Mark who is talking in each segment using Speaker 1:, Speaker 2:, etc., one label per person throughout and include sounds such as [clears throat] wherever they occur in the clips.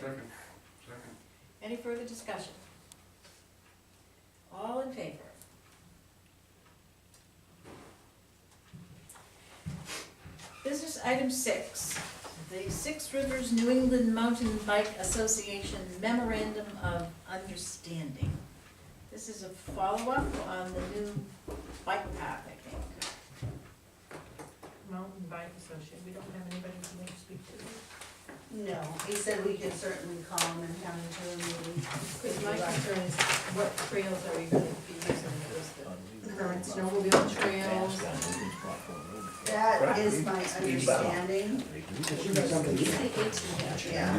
Speaker 1: Second, second.
Speaker 2: Any further discussion? All in favor? Business item six, the Six Rivers New England Mountain Bike Association Memorandum of Understanding. This is a follow-up on the new bike path, I think.
Speaker 3: Mountain Bike Association, we don't have anybody to make speak to.
Speaker 4: No, he said we could certainly call him and have him do a meeting.
Speaker 3: Because my concern is what trails are we gonna be using,
Speaker 5: Uh,
Speaker 3: is the current snowmobile trails?
Speaker 4: That is my
Speaker 5: Speed bump.
Speaker 4: understanding, yeah.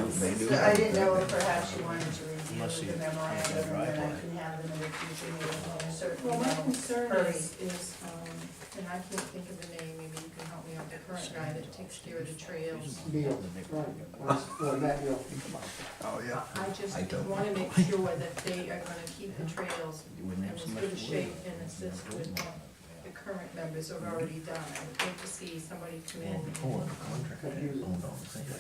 Speaker 5: They do.
Speaker 4: So I didn't know if perhaps you wanted to
Speaker 5: Must see it.
Speaker 4: review the memorandum and then I can have them in the future meeting, certainly.
Speaker 3: Well, my
Speaker 4: know.
Speaker 3: concern is, is, um, and I can't think of the name, maybe you can help me out, the current guy that takes care of the trails.
Speaker 6: Beal, right, was, well, that, Beal.
Speaker 5: Oh,
Speaker 3: I
Speaker 5: yeah.
Speaker 3: I
Speaker 5: I
Speaker 3: just
Speaker 5: don't
Speaker 3: wanna
Speaker 5: know.
Speaker 3: make sure that they are gonna keep the trails
Speaker 5: You wouldn't
Speaker 3: in
Speaker 5: have
Speaker 3: as
Speaker 5: so much
Speaker 3: good
Speaker 5: wood.
Speaker 3: shape and assist with what the current members have already done. I would hate to see somebody come in
Speaker 5: Well, before
Speaker 3: and
Speaker 5: the contract, I owned all the things, so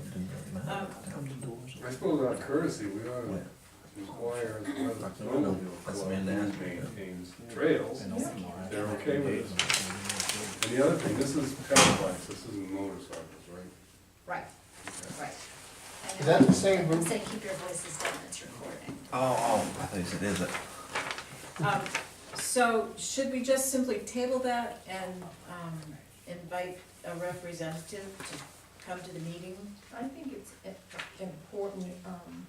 Speaker 5: it didn't really matter. Now the doors
Speaker 1: I
Speaker 5: are-
Speaker 1: suppose out of courtesy, we ought to
Speaker 5: Well,
Speaker 1: inquire as well as the
Speaker 5: No, no,
Speaker 1: snowmobile
Speaker 5: that's
Speaker 1: club
Speaker 5: been
Speaker 1: who
Speaker 5: asked.
Speaker 1: maintains trails.
Speaker 5: and open bar.
Speaker 1: They're okay with And the other thing, this is pedal bikes, this isn't motorcycles, right?
Speaker 2: Right, right. um,
Speaker 6: Is that the same
Speaker 2: I'm
Speaker 6: group?
Speaker 2: saying keep your voices down, it's recording.
Speaker 5: Oh, oh, I think it is, it.
Speaker 2: Um, So should we just simply table that and um, invite a representative to come to the meeting?
Speaker 3: I think it's i- important, um,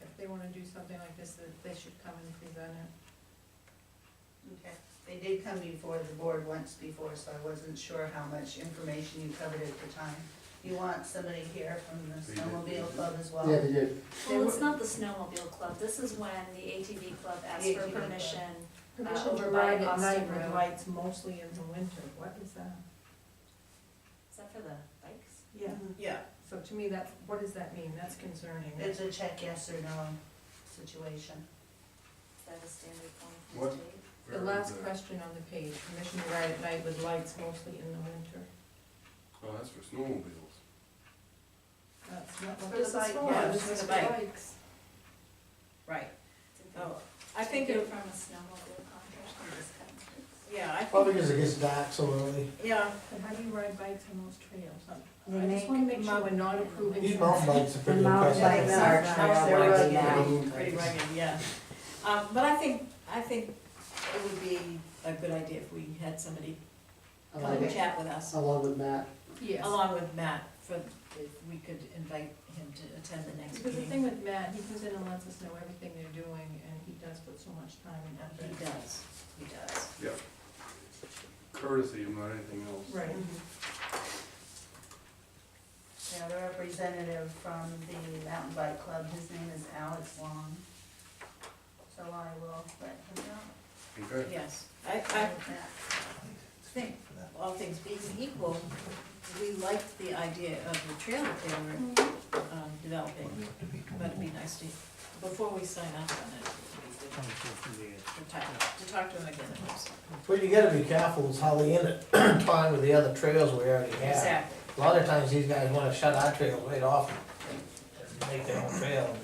Speaker 3: if they wanna do something like this, that they should come and present it.
Speaker 4: Okay. They did come before the board once before, so I wasn't sure how much information you covered at the time. You want somebody here from the
Speaker 1: They did.
Speaker 4: snowmobile club as well?
Speaker 6: Yeah, they did.
Speaker 7: Well, it's not the snowmobile club, this is when the ATV club asked
Speaker 4: The
Speaker 7: for
Speaker 4: ATV club.
Speaker 7: permission. Uh,
Speaker 3: Permission to
Speaker 7: over by
Speaker 3: ride at
Speaker 7: Austin
Speaker 3: night with
Speaker 7: Road.
Speaker 3: lights mostly in the winter, what is that?
Speaker 7: Is that for the bikes?
Speaker 3: Yeah,
Speaker 2: Yeah.
Speaker 3: so to me, that, what does that mean? That's concerning.
Speaker 4: It's a check yes or no situation.
Speaker 7: Is that a standard form
Speaker 1: What?
Speaker 7: of state?
Speaker 3: The
Speaker 1: Or
Speaker 3: last
Speaker 1: is it-
Speaker 3: question on the page, permission to ride at night with lights mostly in the winter.
Speaker 1: Oh, that's for snowmobiles.
Speaker 3: That's not what
Speaker 4: For
Speaker 3: this
Speaker 4: the
Speaker 3: is
Speaker 4: bike,
Speaker 3: for,
Speaker 2: yeah,
Speaker 3: this
Speaker 2: for the
Speaker 3: is for
Speaker 2: bike.
Speaker 3: bikes.
Speaker 2: Right.
Speaker 7: Did they
Speaker 2: Oh, I
Speaker 7: take
Speaker 2: think,
Speaker 7: it
Speaker 2: it-
Speaker 7: from a snowmobile contract in this country?
Speaker 2: yeah, I
Speaker 6: Probably
Speaker 2: think,
Speaker 6: because it gets dark so early.
Speaker 2: yeah,
Speaker 3: But how do you ride bikes on those trails? I-
Speaker 4: They
Speaker 3: I just
Speaker 4: make
Speaker 3: wanna make sure we're not
Speaker 7: mountain-
Speaker 3: approving.
Speaker 6: These mountain bikes are pretty
Speaker 4: Mountain
Speaker 6: impressive.
Speaker 4: bikes are trail
Speaker 2: They're
Speaker 4: bikes
Speaker 2: rugged.
Speaker 4: now.
Speaker 2: pretty rugged, yeah. Um, But I think, I think it would be a good idea if we had somebody come
Speaker 6: Along
Speaker 2: and
Speaker 6: with-
Speaker 2: chat with us,
Speaker 6: Along with Matt.
Speaker 3: Yes.
Speaker 2: along with Matt, for, if we could invite him to attend the next
Speaker 3: Because the
Speaker 2: meeting.
Speaker 3: thing with Matt, he comes in and lets us know everything they're doing, and he does put so much time and
Speaker 2: And
Speaker 3: effort.
Speaker 2: He does, he does.
Speaker 1: Yeah. Courtesy, not anything else.
Speaker 3: Right.
Speaker 4: Yeah, the representative from the mountain bike club, his name is Alex Long. So I will let him know.
Speaker 1: Okay.
Speaker 2: Yes, I, I think,
Speaker 5: For that.
Speaker 2: all things being equal, we liked the idea of the trail that they were um,
Speaker 5: Well,
Speaker 2: developing,
Speaker 5: we have to be-
Speaker 2: but it'd be nice to, before we sign up on it, it'd be good to talk, to talk to them again. in person.
Speaker 6: What you gotta be careful is how they end it, [clears throat] tying with the other trails we already have.
Speaker 2: Exactly,
Speaker 6: A lot of times these guys wanna shut our trails right off and make their own trail.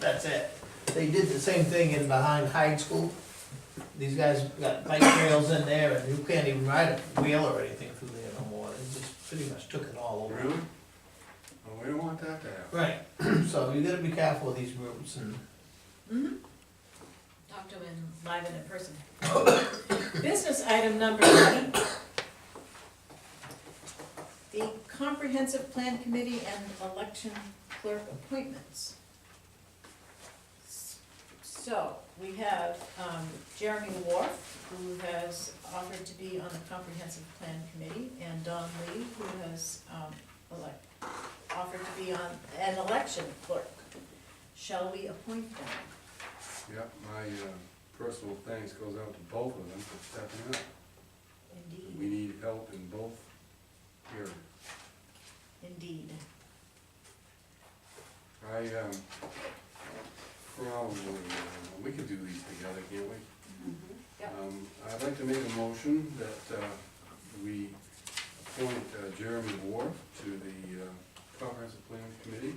Speaker 6: That's it. They did the same thing in behind Hyde School. These guys got bike trails in there and you can't even ride a wheel or anything through there no more. They just pretty much took it all over.
Speaker 1: Really? Well, we don't want that to happen.
Speaker 6: Right, [clears throat] so you gotta be careful of these groups and.
Speaker 2: talk to them live and in person. Business item number nine. The comprehensive plan committee and election clerk appointments. So, we have um, Jeremy Wharf, who has offered to be on the comprehensive plan committee, and Don Lee, who has um, elect, offered to be on an election clerk. Shall we appoint them?
Speaker 1: Yeah, my uh, personal thanks goes out to both of them for stepping up.
Speaker 2: Indeed.
Speaker 1: We need help in both areas.
Speaker 2: Indeed.
Speaker 1: I, um, probably, uh, we could do these together, can't we?
Speaker 2: Yep.
Speaker 1: Um, I'd like to make a motion that, uh, we appoint uh, Jeremy Ward to the, uh, comprehensive plan committee.